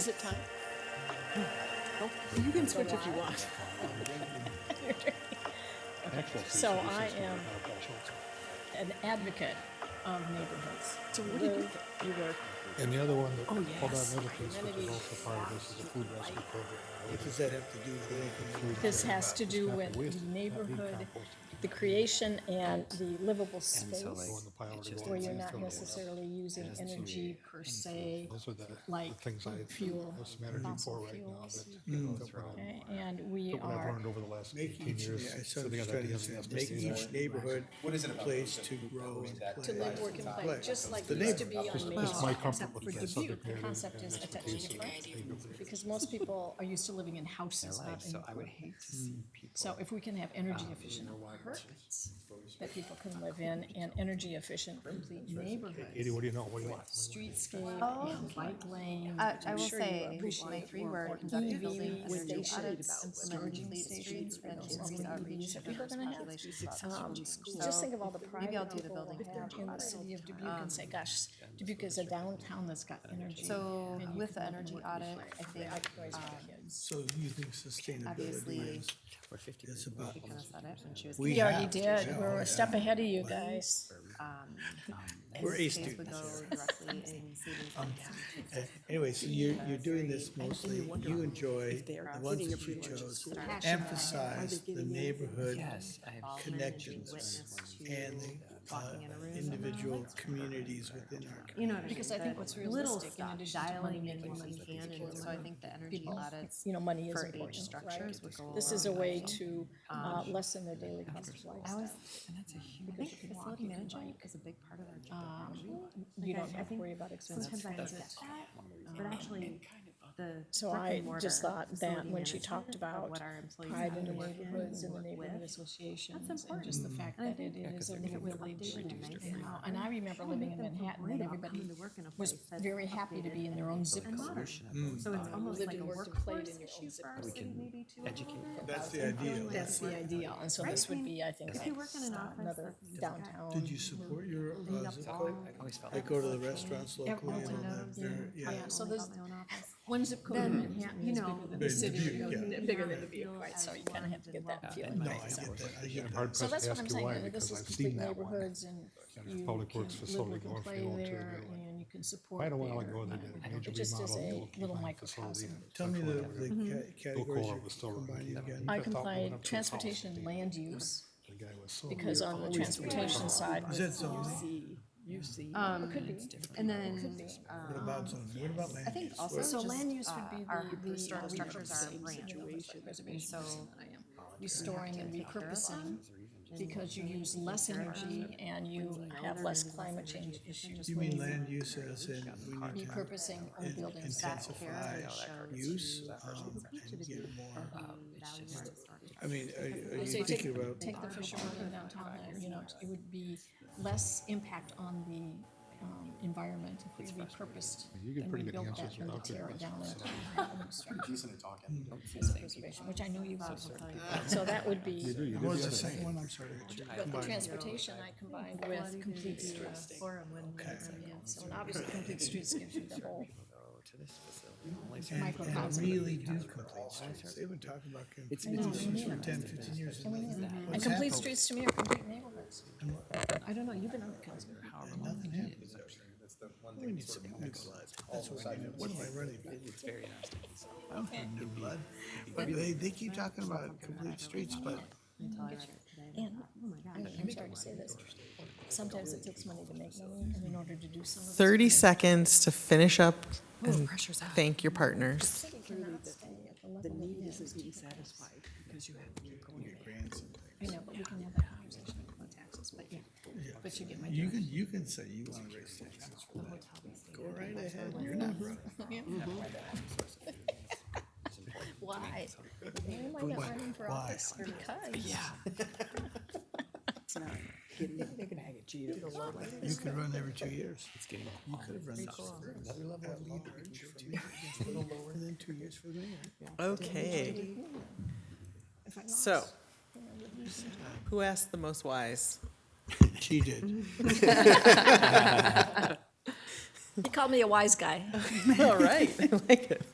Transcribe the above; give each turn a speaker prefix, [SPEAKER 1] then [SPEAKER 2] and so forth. [SPEAKER 1] Is it time? Oh, You can switch if you want.
[SPEAKER 2] So I am
[SPEAKER 3] an advocate of neighborhoods.
[SPEAKER 1] So what do you do?
[SPEAKER 3] Live, You work,
[SPEAKER 2] And the other one that,
[SPEAKER 1] Oh,
[SPEAKER 2] hold on,
[SPEAKER 1] yes.
[SPEAKER 2] the other piece, which is
[SPEAKER 1] Amenities.
[SPEAKER 2] also part of this, is a food rescue program.
[SPEAKER 4] Does that have to do with anything?
[SPEAKER 3] this has to do
[SPEAKER 2] It's not
[SPEAKER 3] with
[SPEAKER 2] wasted,
[SPEAKER 3] the
[SPEAKER 2] it's not
[SPEAKER 3] neighborhood,
[SPEAKER 2] decomposted.
[SPEAKER 3] the creation and the livable
[SPEAKER 5] so,
[SPEAKER 2] Go in
[SPEAKER 3] space,
[SPEAKER 2] the pile
[SPEAKER 5] it's
[SPEAKER 2] to
[SPEAKER 5] just
[SPEAKER 2] go
[SPEAKER 3] where
[SPEAKER 2] in
[SPEAKER 3] you're
[SPEAKER 2] the
[SPEAKER 3] not
[SPEAKER 2] landfill.
[SPEAKER 3] necessarily using
[SPEAKER 5] has to be
[SPEAKER 3] energy per se,
[SPEAKER 2] Those are the, the
[SPEAKER 3] like
[SPEAKER 2] things I,
[SPEAKER 3] fuel,
[SPEAKER 2] have some energy
[SPEAKER 3] fossil
[SPEAKER 2] for right now,
[SPEAKER 3] fuels.
[SPEAKER 2] that, that what I-
[SPEAKER 3] okay? And we
[SPEAKER 2] what I've
[SPEAKER 3] are,
[SPEAKER 2] learned over the last
[SPEAKER 4] Make
[SPEAKER 2] eighteen
[SPEAKER 4] each, yeah,
[SPEAKER 2] years,
[SPEAKER 4] so
[SPEAKER 2] sitting
[SPEAKER 4] just
[SPEAKER 2] on
[SPEAKER 4] trying to
[SPEAKER 2] ideas
[SPEAKER 4] understand,
[SPEAKER 2] and
[SPEAKER 4] make
[SPEAKER 2] SDGs.
[SPEAKER 4] each neighborhood a place to grow and play.
[SPEAKER 3] to live, work, and play, just like it used to be on Main
[SPEAKER 2] Just my
[SPEAKER 3] Street,
[SPEAKER 2] comfort
[SPEAKER 3] except
[SPEAKER 2] with
[SPEAKER 3] for
[SPEAKER 2] the
[SPEAKER 3] Dubuque,
[SPEAKER 2] subject
[SPEAKER 3] the
[SPEAKER 2] matter.
[SPEAKER 3] concept is attached to friends. Because most people are used to living in houses, not in
[SPEAKER 5] so I would
[SPEAKER 3] groups.
[SPEAKER 5] hate to see people.
[SPEAKER 3] So if we can have energy efficient apartments that people can live in and energy efficient complete
[SPEAKER 2] Katie,
[SPEAKER 3] neighborhoods,
[SPEAKER 2] what do you know, what do you want?
[SPEAKER 3] streetscape and bike lanes.
[SPEAKER 6] I,
[SPEAKER 3] which
[SPEAKER 6] I
[SPEAKER 3] I'm
[SPEAKER 6] will
[SPEAKER 3] sure you
[SPEAKER 6] say,
[SPEAKER 3] appreciate,
[SPEAKER 6] my three-word
[SPEAKER 3] EV
[SPEAKER 6] conducted building energy
[SPEAKER 3] stations,
[SPEAKER 6] audits,
[SPEAKER 3] storage
[SPEAKER 6] limited streets,
[SPEAKER 3] stations,
[SPEAKER 6] and
[SPEAKER 3] and
[SPEAKER 6] increase outreach
[SPEAKER 3] communities
[SPEAKER 6] to
[SPEAKER 3] that people are
[SPEAKER 6] diverse
[SPEAKER 3] gonna have.
[SPEAKER 6] population groups.
[SPEAKER 3] Just
[SPEAKER 6] So
[SPEAKER 3] think of all the
[SPEAKER 6] maybe I'll
[SPEAKER 3] private
[SPEAKER 6] do the
[SPEAKER 3] people
[SPEAKER 6] building
[SPEAKER 3] we have
[SPEAKER 6] energy
[SPEAKER 3] in the
[SPEAKER 6] audit.
[SPEAKER 3] city of Dubuque and say, gosh, Dubuque is a downtown that's got energy.
[SPEAKER 6] So
[SPEAKER 3] and you
[SPEAKER 6] with
[SPEAKER 3] can live
[SPEAKER 6] the
[SPEAKER 3] and
[SPEAKER 6] energy
[SPEAKER 3] work and
[SPEAKER 6] audit,
[SPEAKER 3] play.
[SPEAKER 6] I think,
[SPEAKER 3] Likewise with
[SPEAKER 6] um,
[SPEAKER 3] the kids.
[SPEAKER 4] So you think sustainability
[SPEAKER 6] Obviously,
[SPEAKER 4] is,
[SPEAKER 5] We're 50
[SPEAKER 4] is
[SPEAKER 5] people.
[SPEAKER 4] about,
[SPEAKER 6] she kind of said it when she was.
[SPEAKER 4] We
[SPEAKER 6] giving
[SPEAKER 4] already
[SPEAKER 6] it.
[SPEAKER 4] did. Yeah.
[SPEAKER 3] step ahead of you guys.
[SPEAKER 6] Um,
[SPEAKER 4] We're
[SPEAKER 6] this
[SPEAKER 4] A
[SPEAKER 6] case would
[SPEAKER 4] students
[SPEAKER 6] go
[SPEAKER 4] here.
[SPEAKER 6] directly in savings and tax
[SPEAKER 4] Uh, anyway, so you're, you're doing this mostly, you enjoy
[SPEAKER 7] they are
[SPEAKER 4] the ones
[SPEAKER 7] getting
[SPEAKER 4] that you
[SPEAKER 7] approved to
[SPEAKER 4] chose,
[SPEAKER 7] school.
[SPEAKER 4] emphasize
[SPEAKER 7] Are they
[SPEAKER 4] the
[SPEAKER 7] getting anything?
[SPEAKER 4] neighborhood
[SPEAKER 5] Yes, I have.
[SPEAKER 6] involvement and being
[SPEAKER 4] connections
[SPEAKER 6] witness to
[SPEAKER 4] and the uh,
[SPEAKER 6] walking in a room.
[SPEAKER 4] individual communities within our community.
[SPEAKER 6] You know what I mean?
[SPEAKER 3] Because I think
[SPEAKER 6] the
[SPEAKER 3] what's
[SPEAKER 6] Little
[SPEAKER 3] realistic in
[SPEAKER 6] stuff,
[SPEAKER 3] addition to
[SPEAKER 6] dialing
[SPEAKER 3] money
[SPEAKER 6] in when
[SPEAKER 3] making
[SPEAKER 6] you can, and so I think the energy
[SPEAKER 3] people,
[SPEAKER 6] audits
[SPEAKER 3] you know, money is
[SPEAKER 6] for age
[SPEAKER 3] important, right?
[SPEAKER 6] structures would go a
[SPEAKER 3] This is a
[SPEAKER 6] long
[SPEAKER 3] way
[SPEAKER 6] way. Um,
[SPEAKER 3] to uh, lessen their daily cost of
[SPEAKER 6] I
[SPEAKER 3] lifestyle.
[SPEAKER 6] was, and that's a huge. I think facility management is a big part of our job.
[SPEAKER 3] You
[SPEAKER 6] Like, I-
[SPEAKER 3] don't
[SPEAKER 6] I
[SPEAKER 3] have to
[SPEAKER 6] think
[SPEAKER 3] worry about expensive
[SPEAKER 6] Sometimes I
[SPEAKER 3] transit.
[SPEAKER 6] forget that, but actually, the.
[SPEAKER 3] So
[SPEAKER 6] brick
[SPEAKER 3] I
[SPEAKER 6] and mortar
[SPEAKER 3] just thought that
[SPEAKER 6] facility
[SPEAKER 3] when she
[SPEAKER 6] management
[SPEAKER 3] talked
[SPEAKER 6] of
[SPEAKER 3] about
[SPEAKER 6] what our employees
[SPEAKER 3] pride
[SPEAKER 6] have
[SPEAKER 3] in
[SPEAKER 6] to
[SPEAKER 3] the
[SPEAKER 6] work in
[SPEAKER 3] neighborhoods and the
[SPEAKER 6] work
[SPEAKER 3] neighborhood
[SPEAKER 6] with,
[SPEAKER 3] associations and just the fact
[SPEAKER 6] And I
[SPEAKER 3] that it
[SPEAKER 6] think- Yeah,
[SPEAKER 3] is a
[SPEAKER 6] if
[SPEAKER 3] little
[SPEAKER 6] it was
[SPEAKER 3] village.
[SPEAKER 6] updated and nice
[SPEAKER 3] you know,
[SPEAKER 6] modern,
[SPEAKER 3] And I remember
[SPEAKER 6] it would
[SPEAKER 3] living
[SPEAKER 6] make
[SPEAKER 3] in
[SPEAKER 6] them feel
[SPEAKER 3] Manhattan
[SPEAKER 6] great
[SPEAKER 3] and
[SPEAKER 6] about
[SPEAKER 3] everybody
[SPEAKER 6] coming to work in a
[SPEAKER 3] was
[SPEAKER 6] place that's
[SPEAKER 3] very happy to
[SPEAKER 6] updated
[SPEAKER 3] be in their own zip
[SPEAKER 6] and modern.
[SPEAKER 3] code.
[SPEAKER 5] Solution of those
[SPEAKER 6] So it's
[SPEAKER 5] five.
[SPEAKER 6] almost
[SPEAKER 3] lived
[SPEAKER 6] like a
[SPEAKER 3] and worked and played
[SPEAKER 6] workforce
[SPEAKER 3] in your own
[SPEAKER 6] issue
[SPEAKER 3] zip
[SPEAKER 6] for our
[SPEAKER 3] code.
[SPEAKER 5] We
[SPEAKER 6] city
[SPEAKER 5] can
[SPEAKER 6] maybe too. a little
[SPEAKER 5] educate
[SPEAKER 6] bit.
[SPEAKER 4] That's the ideal.
[SPEAKER 3] That's the ideal, and so
[SPEAKER 6] Right,
[SPEAKER 3] this
[SPEAKER 6] I
[SPEAKER 3] would
[SPEAKER 6] mean,
[SPEAKER 3] be, I think,
[SPEAKER 6] if you work in an
[SPEAKER 3] uh,
[SPEAKER 6] office
[SPEAKER 3] another
[SPEAKER 6] that's got
[SPEAKER 3] downtown.
[SPEAKER 4] Did you support your
[SPEAKER 6] Lead
[SPEAKER 4] uh,
[SPEAKER 6] up
[SPEAKER 4] zip
[SPEAKER 6] wall.
[SPEAKER 4] code?
[SPEAKER 5] I always felt
[SPEAKER 4] I
[SPEAKER 5] like
[SPEAKER 4] go to the restaurants locally and all that,
[SPEAKER 6] Yeah.
[SPEAKER 4] very- yeah.
[SPEAKER 6] I
[SPEAKER 3] Yeah, so
[SPEAKER 6] only
[SPEAKER 3] there's-
[SPEAKER 6] got my own office.
[SPEAKER 3] One zip code in Manhattan
[SPEAKER 6] you
[SPEAKER 3] is
[SPEAKER 6] know,
[SPEAKER 3] bigger than the
[SPEAKER 4] Bigger than
[SPEAKER 3] city,
[SPEAKER 4] Dubuque,
[SPEAKER 3] of-
[SPEAKER 4] yeah.
[SPEAKER 3] bigger than
[SPEAKER 6] Yeah.
[SPEAKER 3] the Dubuque, right, so you kind of have to get that
[SPEAKER 5] Yeah,
[SPEAKER 3] feeling.
[SPEAKER 5] and my
[SPEAKER 4] No, I
[SPEAKER 5] example
[SPEAKER 4] get that, I
[SPEAKER 5] is
[SPEAKER 4] get
[SPEAKER 2] I'm
[SPEAKER 4] that.
[SPEAKER 2] hard
[SPEAKER 3] So
[SPEAKER 2] pressed
[SPEAKER 3] that's
[SPEAKER 2] to
[SPEAKER 3] what
[SPEAKER 2] ask
[SPEAKER 3] I'm
[SPEAKER 2] you
[SPEAKER 3] saying,
[SPEAKER 2] why,
[SPEAKER 3] uh, this
[SPEAKER 2] because
[SPEAKER 3] is
[SPEAKER 2] I've seen
[SPEAKER 3] complete
[SPEAKER 2] that one.
[SPEAKER 3] neighborhoods and
[SPEAKER 2] And
[SPEAKER 3] you
[SPEAKER 2] Public
[SPEAKER 3] can
[SPEAKER 2] Works
[SPEAKER 3] live,
[SPEAKER 2] facility
[SPEAKER 3] work
[SPEAKER 2] going
[SPEAKER 3] and
[SPEAKER 2] from
[SPEAKER 3] play
[SPEAKER 2] one to
[SPEAKER 3] there,
[SPEAKER 2] another.
[SPEAKER 3] and you can support
[SPEAKER 2] Quite
[SPEAKER 3] there.
[SPEAKER 2] a while ago,
[SPEAKER 3] and
[SPEAKER 2] they did
[SPEAKER 3] I
[SPEAKER 2] a
[SPEAKER 3] don't-
[SPEAKER 2] major
[SPEAKER 3] It just is
[SPEAKER 2] remodel of the
[SPEAKER 3] a
[SPEAKER 2] old
[SPEAKER 3] little
[SPEAKER 2] confined
[SPEAKER 3] microcosm.
[SPEAKER 2] facility.
[SPEAKER 4] Tell me the, the ca- categories
[SPEAKER 2] Cola
[SPEAKER 4] you're
[SPEAKER 2] was still
[SPEAKER 4] combining
[SPEAKER 2] around.
[SPEAKER 4] again.
[SPEAKER 3] I
[SPEAKER 2] That thought went
[SPEAKER 3] combine
[SPEAKER 2] up to the house.
[SPEAKER 3] transportation land use,
[SPEAKER 2] The guy was so
[SPEAKER 3] because
[SPEAKER 2] weird.
[SPEAKER 3] on the
[SPEAKER 2] Always
[SPEAKER 3] transportation side,
[SPEAKER 4] Is that zoning?
[SPEAKER 7] see, you see.
[SPEAKER 6] Um, and
[SPEAKER 3] could be.
[SPEAKER 6] then,
[SPEAKER 4] What
[SPEAKER 6] um,
[SPEAKER 4] about zoning? What about land
[SPEAKER 6] I think
[SPEAKER 4] use?
[SPEAKER 6] also
[SPEAKER 4] Where-
[SPEAKER 3] so
[SPEAKER 6] just,
[SPEAKER 3] land use
[SPEAKER 6] uh,
[SPEAKER 3] would be
[SPEAKER 6] our
[SPEAKER 3] the, the.
[SPEAKER 6] historic
[SPEAKER 3] uh,
[SPEAKER 6] structures are
[SPEAKER 3] repurposing,
[SPEAKER 6] brand.
[SPEAKER 3] you know, like
[SPEAKER 7] Situation.
[SPEAKER 3] Preservation
[SPEAKER 6] And so
[SPEAKER 3] person that I am.
[SPEAKER 2] Oh,
[SPEAKER 3] Restoring and repurposing, because you
[SPEAKER 6] really
[SPEAKER 3] use
[SPEAKER 6] take
[SPEAKER 3] less
[SPEAKER 6] care of our
[SPEAKER 3] energy and you have
[SPEAKER 6] older
[SPEAKER 3] less
[SPEAKER 6] and less
[SPEAKER 3] climate
[SPEAKER 6] energy
[SPEAKER 3] change
[SPEAKER 6] efficient,
[SPEAKER 3] issues.
[SPEAKER 6] just
[SPEAKER 4] You
[SPEAKER 6] way
[SPEAKER 4] mean
[SPEAKER 6] more
[SPEAKER 4] land use as in we need to
[SPEAKER 3] Repurposing old
[SPEAKER 4] in-
[SPEAKER 3] buildings back.
[SPEAKER 4] intensify
[SPEAKER 6] care showed
[SPEAKER 4] use
[SPEAKER 6] to
[SPEAKER 4] um, and get more. I mean, are you- are
[SPEAKER 3] So you
[SPEAKER 4] you
[SPEAKER 3] take,
[SPEAKER 4] thinking about,
[SPEAKER 3] take the Fisher Road in downtown, there, you know, it would be less impact on the, um, environment if we repurposed.
[SPEAKER 2] You get
[SPEAKER 3] and
[SPEAKER 2] pretty good
[SPEAKER 3] rebuilt that
[SPEAKER 2] answers
[SPEAKER 3] than to
[SPEAKER 2] without
[SPEAKER 3] tear
[SPEAKER 2] getting
[SPEAKER 3] it down and
[SPEAKER 5] Hmm. Yes, thank you.
[SPEAKER 3] preservation, which I
[SPEAKER 6] Oh,
[SPEAKER 3] know you love. So that would
[SPEAKER 2] You
[SPEAKER 3] be,
[SPEAKER 2] do, you
[SPEAKER 4] what
[SPEAKER 2] do the
[SPEAKER 4] was the
[SPEAKER 2] other
[SPEAKER 4] second
[SPEAKER 2] thing.
[SPEAKER 4] one? I'm sorry. I got you.
[SPEAKER 3] but the
[SPEAKER 4] Combined.
[SPEAKER 3] transportation I combined with complete streets.
[SPEAKER 6] Forum when we
[SPEAKER 4] Okay.
[SPEAKER 3] Yeah, So and obviously, complete streets gives you the whole
[SPEAKER 5] Go oh, to this facility. Only
[SPEAKER 4] And-
[SPEAKER 5] certain-
[SPEAKER 4] And really do complete streets. They've been talking about complete streets for 10, 15 years. and nothing-
[SPEAKER 3] And
[SPEAKER 4] what's
[SPEAKER 3] complete
[SPEAKER 4] happened?
[SPEAKER 3] streets to me are complete neighborhoods. I don't know, you've been on the council.
[SPEAKER 4] And Nothing happens. We need some new blood. That's what I mean. What am I running back?
[SPEAKER 5] It's very nasty.
[SPEAKER 4] I don't have new blood. But they, they keep talking about complete streets, but
[SPEAKER 6] until I read it today.
[SPEAKER 3] And
[SPEAKER 6] Oh my gosh.
[SPEAKER 3] I- I'm sorry to say this, sometimes it takes money to make money, and in order to do some of it.
[SPEAKER 8] 30 seconds to finish up and thank your partners.
[SPEAKER 3] City cannot stay at the level it
[SPEAKER 7] Need
[SPEAKER 3] is.
[SPEAKER 7] isn't being satisfied because you have to keep going.
[SPEAKER 4] your grandson.
[SPEAKER 3] I know, but we can have that conversation about taxes, but yeah, but you get my
[SPEAKER 4] You can, you can say you want to raise taxes for that. Go right ahead. You're not wrong. Mm-hmm.
[SPEAKER 3] why. Why am I not running for office? Because.
[SPEAKER 7] It's not getting, they're gonna have a G.
[SPEAKER 4] You could run every two years.
[SPEAKER 5] It's getting
[SPEAKER 4] You could have run this for another level of leader. A little lower than two years for me.
[SPEAKER 8] Okay. So, who asked the most wise?
[SPEAKER 4] She did.
[SPEAKER 3] They call me a wise guy.
[SPEAKER 8] All right, I like it.